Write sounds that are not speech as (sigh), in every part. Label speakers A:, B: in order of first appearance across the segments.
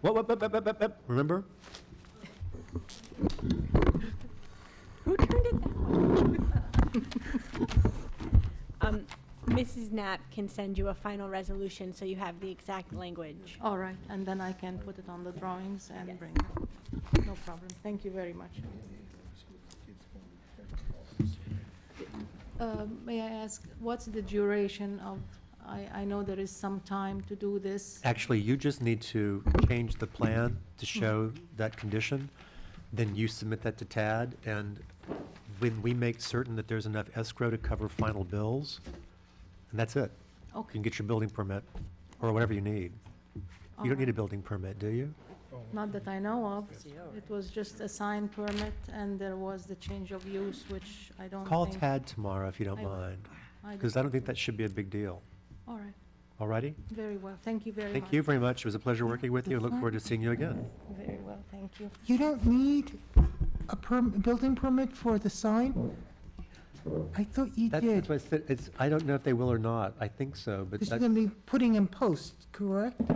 A: What, what, what, what, what, what, what, remember?
B: Who turned it that way? (laughs) Um, Mrs. Knapp can send you a final resolution, so you have the exact language.
C: All right, and then I can put it on the drawings
B: Yes.
C: and bring it. No problem. Thank you very much. Um, May I ask, what's the duration of, I, I know there is some time to do this.
A: Actually, you just need to change the plan to show that condition, then you submit that to TAD, and when we make certain that there's enough escrow to cover final bills, and that's it. You
C: Okay,
A: can get your building permit, or whatever you need. You don't need a
C: Alright.
A: building permit, do you?
C: not that I know of. It was just a sign permit, and there was the change of use, which I don't think.
A: Call TAD tomorrow if you don't
C: I will.
A: mind,
C: I
A: because I don't think that should be a big deal.
C: All right,
A: All righty?
C: very well. Thank you very much.
A: Thank you very much. It was a pleasure working with you. I look forward to seeing you again.
C: Very well, thank you.
D: You don't need a perm, building permit for the sign? I thought you
A: That's that's
D: did.
A: what I said, it's, I don't know if they will or not. I think so, but
D: Because you're
A: that,
D: gonna be putting in posts, correct? They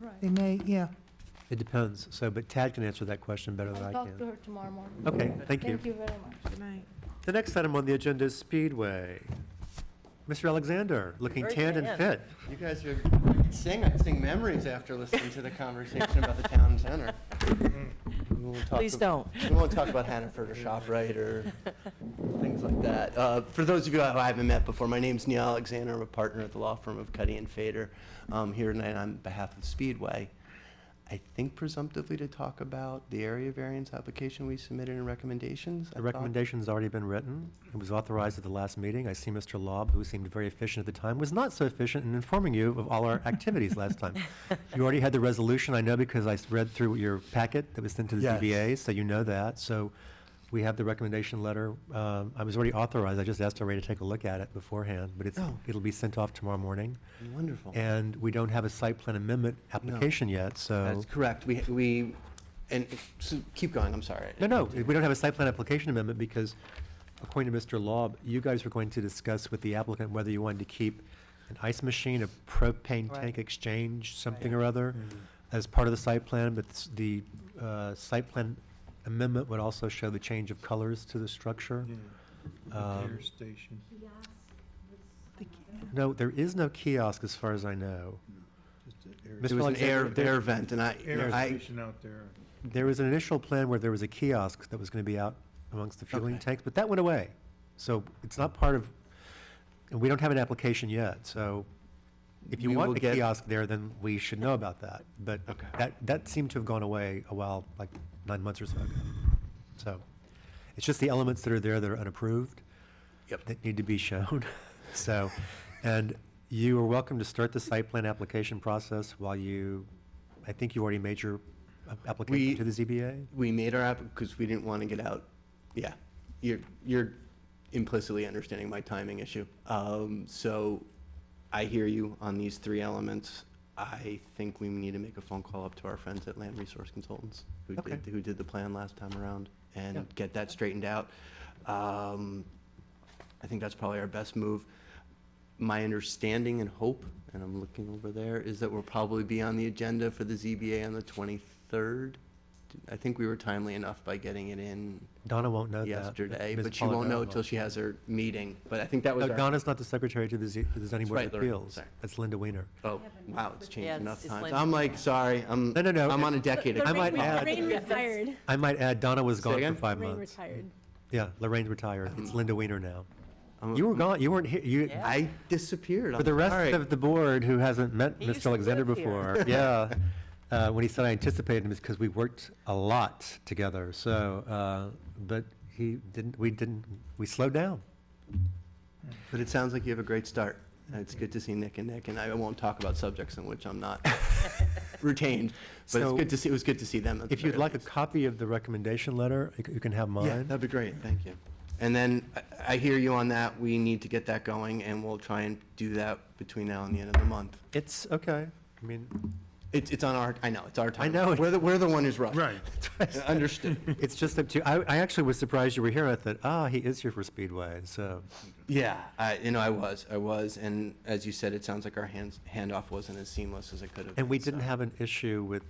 C: Right.
D: may, yeah.
A: it depends. So, but Tad can answer that question better than I
C: I'll talk to
A: can.
C: her tomorrow morning.
A: Okay, thank you.
C: Thank you very much.
A: The next item on the agenda is Speedway. Mr. Alexander, looking
E: Very
A: tanned and
E: tan.
A: fit.
F: You guys are sing memories after listening to the conversation about the town center. We won't talk
E: Please
F: ab-
E: don't.
F: We won't talk about Hannaford or
E: (laughs)
F: ShopRite or things like that. Uh, For those of you who I haven't met before, my name's Neil Alexander. I'm a partner at the law firm of Cuddy and Fader. I'm here tonight on behalf of Speedway. I think presumptively to talk about the area variance application we submitted and recommendations. I
A: The
F: thought.
A: recommendation's already been written. It was authorized at the last meeting. I see Mr. Lob, who seemed very efficient at the time, was not so efficient in informing you of all our
F: (laughs)
A: activities last time. You already had the resolution, I know, because I s- read through your packet that was sent to the
F: Yes.
A: ZBA, so you know that. So we have the recommendation letter. Um, I was already authorized. I just asked Ray to take a look at it beforehand, but it's,
F: Oh.
A: it'll be sent off tomorrow morning.
F: Wonderful.
A: And we don't have a site plan amendment application yet, so.
F: That's correct. We, we, and, so keep going, I'm sorry.
A: No, no, we don't have a site plan application amendment because according to Mr. Law, you guys were going to discuss with the applicant whether you wanted to keep an ice machine, a propane tank
E: Right.
A: exchange, something or other as part of the site plan, but s- the uh, site plan amendment would also show the change of colors to the structure. Um,
G: station.
A: No, there is no kiosk as far as I know.
F: It
A: Mr.
F: was an air,
A: Alexander, there-
F: air vent, and I, I,
G: out there.
A: There was an initial plan where there was a kiosk that was going to be out amongst the fueling
F: Okay.
A: tanks, but that went away. So it's not part of, and we don't have an application yet, so if you
F: We
A: want
F: will
A: the
F: get-
A: kiosk there, then we should know about that. But
F: Okay.
A: that, that seemed to have gone away a while, like nine months or so ago. So it's just the elements that are there that are unapproved
F: Yep.
A: that need to be shown. (laughs) So, and you are welcome to start the site plan application process while you, I think you already made your uh,
F: We-
A: application to the ZBA?
F: we made our app, because we didn't want to get out, yeah, you're, you're implicitly understanding my timing issue. Um, so I hear you on these three elements. I think we need to make a phone call up to our friends at Land Resource Consultants, who
A: Okay.
F: did, who did the plan last time around,
A: Yeah.
F: and get that straightened out. Um, I think that's probably our best move. My understanding and hope, and I'm looking over there, is that we'll probably be on the agenda for the ZBA on the 23rd. I think we were timely enough by getting it in
A: Donna won't know that.
F: yesterday,
A: uh, Ms. Uh,
F: but she won't
A: Polidoro
F: know until she has her meeting. But I think that was
A: No,
F: our,
A: Donna's not the secretary to the Z- to the zoning board of
F: right, Lorraine,
A: appeals.
F: sorry.
A: That's Linda Weiner.
F: oh, wow, it's changed
E: Yeah, it's-
F: enough
E: it's
F: times.
E: Linda.
F: I'm like, sorry, I'm,
A: No, no, no,
F: I'm
A: it-
F: on
E: (laughs)
F: a decade.
A: I
F: ago.
A: might
F: Wow.
A: add-
B: Lorraine retired.
A: I might add, Donna was
F: Say
A: gone for
F: again? Mm-hmm.
A: five
B: Lorraine
A: months.
B: retired.
A: Yeah, Lorraine retired. It's Linda Weiner now.
F: I'm-
A: You were gone, you weren't here, you,
E: Yeah.
F: I disappeared.
A: for the
F: I'm sorry.
A: rest of the board who hasn't met
E: He used
A: Mr.
E: to
A: Alexander
E: live here. (laughs)
A: before, yeah. uh, When he said I anticipated him, it's because we worked a lot together, so, uh, but he didn't, we didn't, we slowed down.
F: But it sounds like you have a great start. Uh, It's good to see Nick and Nick, and I won't talk about subjects in which
A: (laughs)
F: I'm not retained. But it's
A: So-
F: good to see, it was good to see them. at the
A: If you'd
F: very
A: like a
F: least.
A: copy of the recommendation letter, you c- you can have
F: Yeah,
A: mine.
F: that'd be great, thank you. And then, I- I hear you on that, we need to get that going, and we'll try and do that between now and the end of the month.
A: It's okay, I mean,
F: It's, it's on our, I know, it's our time.
A: know.
F: We're the, we're the one who's
A: (laughs)
F: rushed.
G: Right.
F: (laughs) Understood.
A: It's just up to, you. I, I actually was surprised you were here. I thought, ah, he is here for Speedway, so.
F: Yeah, I, you know, I was, I was, and as you said, it sounds like our hands, handoff wasn't as seamless as it could have been.
A: And we didn't
F: so.
A: have an issue with